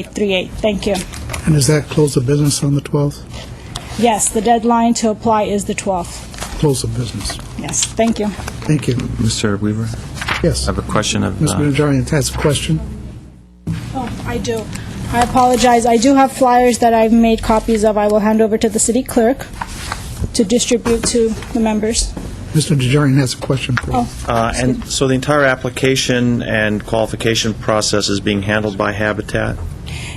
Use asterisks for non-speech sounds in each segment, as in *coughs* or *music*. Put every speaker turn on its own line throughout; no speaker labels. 838. Thank you.
And does that close the business on the 12th?
Yes, the deadline to apply is the 12th.
Close the business.
Yes, thank you.
Thank you.
Mr. Weaver,
Yes.
I have a question of,
Mr.
uh,
Najarian has a question.
Oh, I do. I apologize. I do have flyers that I've made copies of. I will hand over to the city clerk to distribute to the members. Oh,
Mr. Najarian has a question, please.
Uh, And so the entire application and qualification process is being handled by Habitat?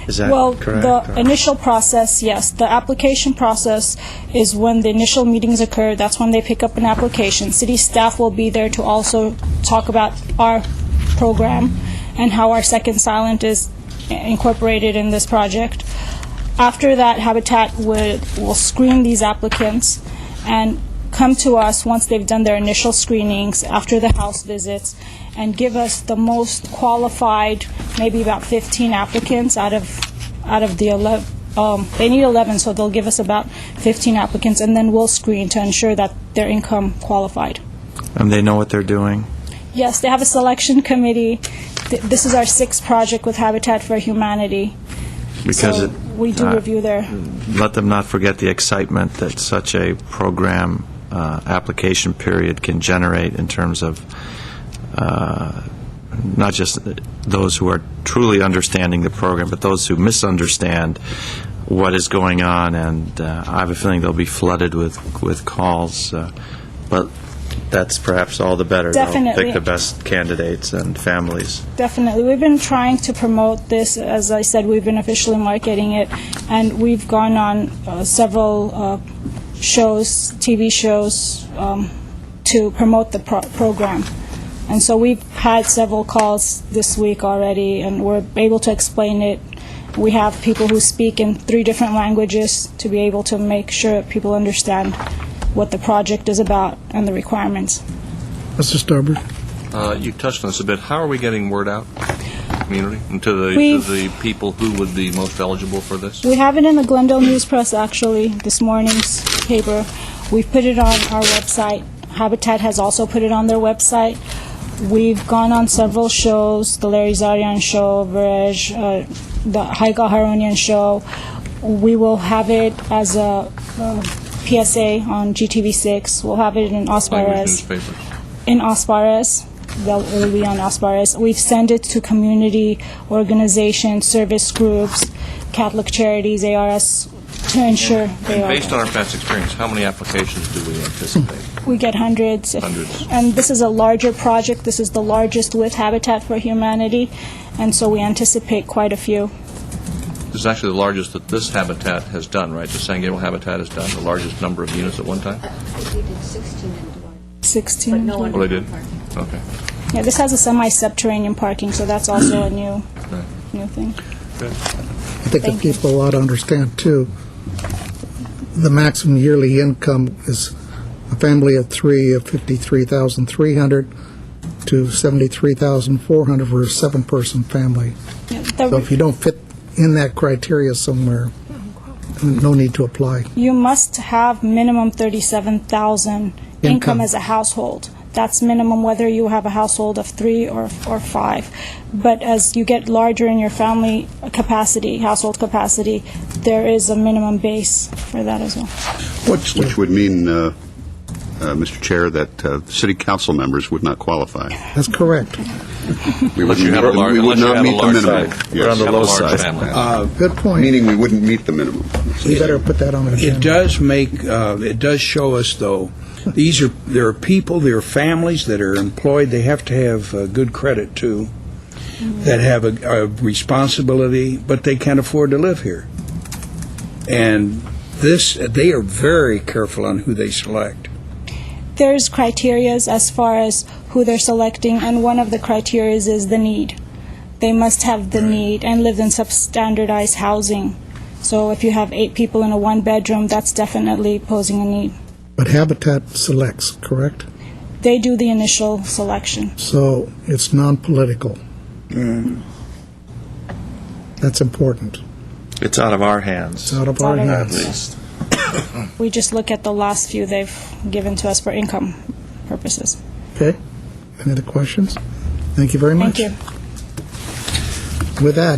Is that
Well,
correct?
the
or-
initial process, yes. The application process is when the initial meetings occur. That's when they pick up an application. City staff will be there to also talk about our program and how our second silent is incorporated in this project. After that, Habitat would, will screen these applicants and come to us once they've done their initial screenings after the house visits and give us the most qualified, maybe about 15 applicants out of, out of the 11, um, they need 11, so they'll give us about 15 applicants, and then we'll screen to ensure that their income qualified.
and they know what they're doing?
Yes, they have a selection committee. Th- This is our sixth project with Habitat for Humanity.
Because
So
it...
we do
uh,
review their-
Let them not forget the excitement that such a program uh, application period can generate in terms of uh, not just those who are truly understanding the program, but those who misunderstand what is going on, and uh, I have a feeling they'll be flooded with, with calls, uh, but that's perhaps all the better. They'll
Definitely.
Pick the best candidates and families.
Definitely. We've been trying to promote this. As I said, we've been officially marketing it, and we've gone on uh, several uh, shows, TV shows, um, to promote the pro- program. And so we've had several calls this week already, and we're able to explain it. We have people who speak in three different languages to be able to make sure people understand what the project is about and the requirements.
Mr. Starbird?
Uh, You touched on this a bit. How are we getting word out to the community and to the, to
We've-
the people who would be most eligible for this?
We have it in the Glendale News Press, actually, this morning's paper. We've put it on our website. Habitat has also put it on their website. We've gone on several shows, the Larry Zarian Show, Verej, uh, the Haiga Haronian Show. We will have it as a uh, PSA on GTV6. We'll have it in
Language
Osparez
newspapers.
in Osparas. They'll it'll be on Osparas. We've sent it to community organizations, service groups, Catholic charities, ARS, to ensure they are.
Based on our past experience, how many applications do we anticipate?
We get hundreds. if-
Hundreds.
And this is a larger project. This is the largest with Habitat for Humanity, and so we anticipate quite a few.
This is actually the largest that this habitat has done, right? The San Gabriel habitat has done, the largest number of units at one time?
We did 16 in Duarte.
16.
But no one-
Well, they did? Okay.
Yeah, this has a semi-subterranean parking, so that's also a new,
Right.
new thing.
I think the
Thank you.
people ought to understand, too, the maximum yearly income is a family of three of 53300 to 73400 for a seven-person family.
Yeah,
So
the-
if you don't fit in that criteria somewhere, no need to apply.
you must have minimum 37,000
Income.
income as a household. That's minimum whether you have a household of three or, or five. But as you get larger in your family capacity, household capacity, there is a minimum base for that as well.
Which, which would mean, uh, uh, Mr. Chair, that uh, city council members would not qualify.
That's correct.
We
*laughs* Unless you have a
wouldn't meet the-
large,
we would
unless you
not
have a
meet
large family.
the minimum. Yes.
on the
Have a
low
large
side.
family.
Good point.
Meaning we wouldn't meet the minimum.
You better put that on the
It
agenda.
does make, uh, it does show us, though, these are, there are people, there are families that are employed, they have to have uh, good credit, too, that have a a responsibility, but they can't afford to live here. And this, they are very careful on who they select.
There's criterias as far as who they're selecting, and one of the criterias is the need. They must have the need and live in substandardized housing. So if you have eight people in a one bedroom, that's definitely posing a need.
But Habitat selects, correct?
they do the initial selection.
So it's non-political.
Mm.
That's important.
It's out of our
It's
hands,
out of our
Out of our
hands.
hands. *coughs* We just look at the last few they've given to us for income purposes.
Okay. Any other questions? Thank you very
Thank
much.
you.
With that,